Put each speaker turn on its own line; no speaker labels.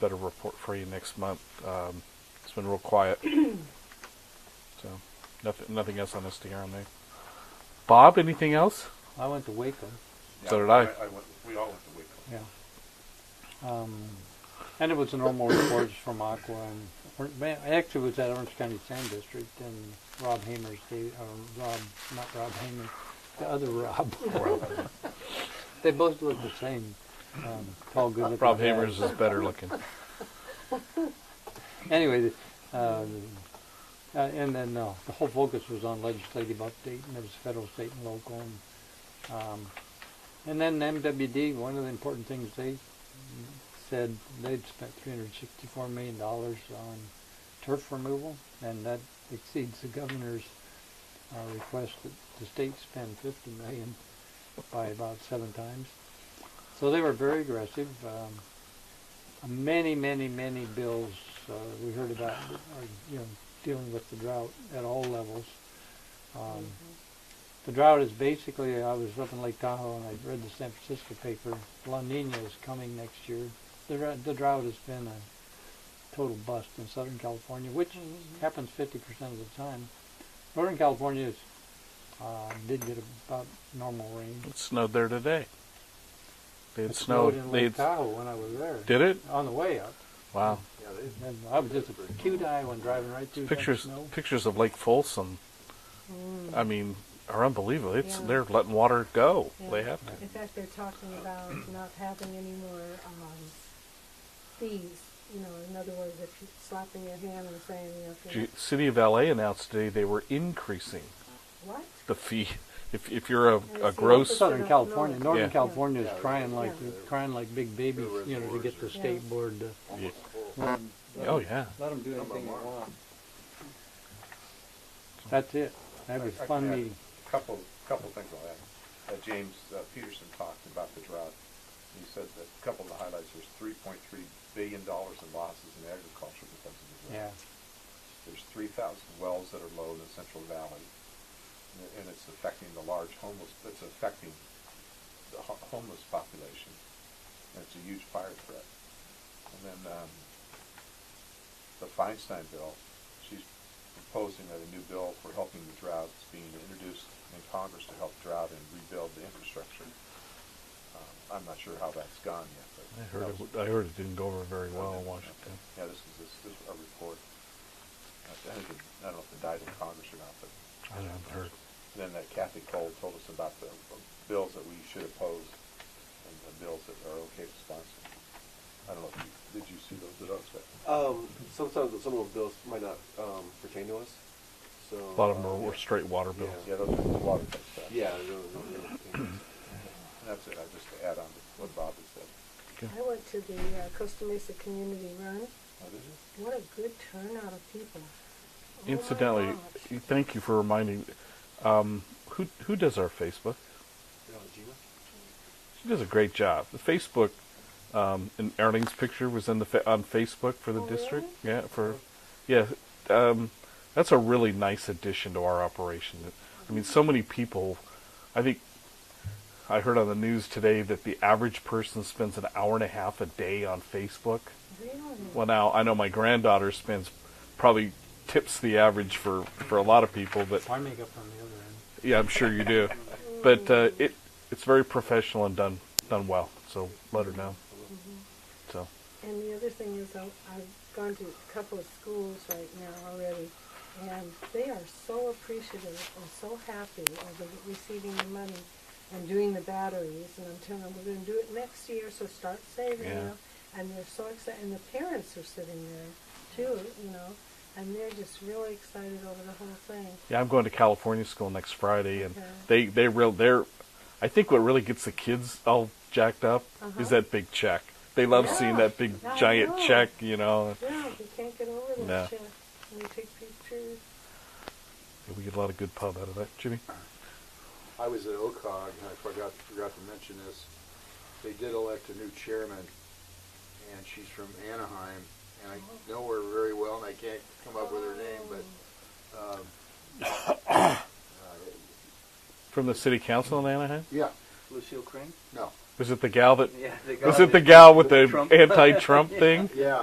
better report for you next month. Um, it's been real quiet. so, nothing, nothing else on SDR there. Bob, anything else?
I went to Waco.
So did I.
went, we all went to Waco.
Yeah. Um, and it was the normal reports from Aqua and or- man, actually it was at Orange County Sand District and Rob Hamer's gave uh, Rob not Rob Hamer, the other Rob. they both look the same. Um, tall, good looking.
Rob Hamer's is better looking.
Anyway, uh, uh, and then uh, the whole focus was on legislative update, and it was federal, state, and local. And, um, and then MWD, one of the important things they said they'd spent $364 million on turf removal, and that exceeds the governor's uh, request that the state spend 50 million by about seven times. So they were very aggressive. Um, many, many, many bills uh, we heard about are you know dealing with the drought at all levels. Um, the drought is basically, I was up in Lake Tahoe and I read the San Francisco paper, La Nina is coming next year. The, dr- the drought has been a total bust in Southern California, which happens 50% of the time. Northern California is, uh, did get about normal rain.
It snowed there today. They had
It snowed
snowed.
in
they had,
Lake Tahoe when I was there.
did it?
On the way up.
Wow.
Yeah, they,
And I was just a cute eye when driving right through that
Pictures
snow.
pictures of Lake Folsom, I mean, are unbelievable. It's
Mm. Yeah.
They're letting water go.
Yeah.
They have to.
In fact, they're talking about not having any more um, fees. You know, in other words, if you're slapping your hand and saying, you know, if you're
G- City of LA announced today they were increasing
what?
the fee. If, if you're a, a
it's
gross,
also-
Southern California, Northern
Yeah.
California
Yeah.
is crying like
Yeah.
crying like big babies, you know, to get the
Yeah.
state board to
Yeah.
almost full.
oh yeah,
let them do
Number anything they one. want.
That's it. That was a fun
Yeah.
meeting.
Couple, couple things on that. Uh, James uh, Peterson talked about the drought. He said that a couple of the highlights was three point three billion dollars in losses in agriculture because of the
Yeah.
drought. There's three thousand wells that are low in the Central Valley, and- and it's affecting the large homeless, it's affecting the ho- homeless population. And it's a huge fire threat. And then, um, the Feinstein bill, she's proposing that a new bill for helping the drought is being introduced in Congress to help drought and rebuild the infrastructure. Um, I'm not sure how that's gone yet, but.
I heard
that
it.
was-
w- I heard it didn't go over very well in Washington.
yeah, this is, this is a report. I think it- I don't know if it died in Congress or not, but
I haven't heard.
then that Kathy Cole told us about the bills that we should oppose and the bills that are okay to sponsor. I don't know if you, did you see those, did I expect?
Um, sometimes some of those bills might not um, pertain to us. So
A lot of them
uh,
are, were straight water bills.
Yeah, those are the water tech stuff.
Yeah, those, those, those things.
And that's it, I just to add on to what Bob had said.
I went to the uh, Costa Mesa Community Run.
Oh, did you?
What a good turnout of people. Oh my
Incidentally,
gosh.
thank you for reminding. Um, who who does our Facebook?
You know, Gina?
She does a great job. The Facebook, um, and Erling's picture was in the fa- on Facebook for the
Oh,
district. Yeah, for, yeah, um, that's a really nice addition to our operation. I mean, so many people. I think I heard on the news today that the average person spends an hour and a half a day on Facebook.
Really?
Well, now I know my granddaughter spends probably tips the average for for a lot of people, but
I make up on the other end.
yeah, I'm sure you do. But uh, it it's very professional and done done well. So let her know.
Mm-hmm.
So
And the other thing is, I- I've gone to a couple of schools right now already, and they are so appreciative and so happy over receiving the money and doing the batteries, and I'm telling them, we're gonna do it next year, so start saving
Yeah.
now. And they're so excited, and the parents are sitting there too, you know, and they're just really excited over the whole thing.
yeah, I'm going to California school next Friday, and
Okay.
they they real they're. I think what really gets the kids all jacked up
Uh-huh.
is that big check. They love seeing
Yeah,
that big
I
giant
know.
check. You know,
Yeah, you can't get over
No.
that shit. And you take pictures.
we get a lot of good pub out of that, Jimmy.
I was at OCOG, and I forgot, forgot to mention this. They did elect a new chairman, and she's from Anaheim, and I know her very well, and I can't come up with her name, but, um,
From the city council in Anaheim.
yeah,
Lucille Crane?
no.
Was it the gal that
Yeah, they
was
got
it the gal with the
Trump.
anti-Trump thing?
Yeah.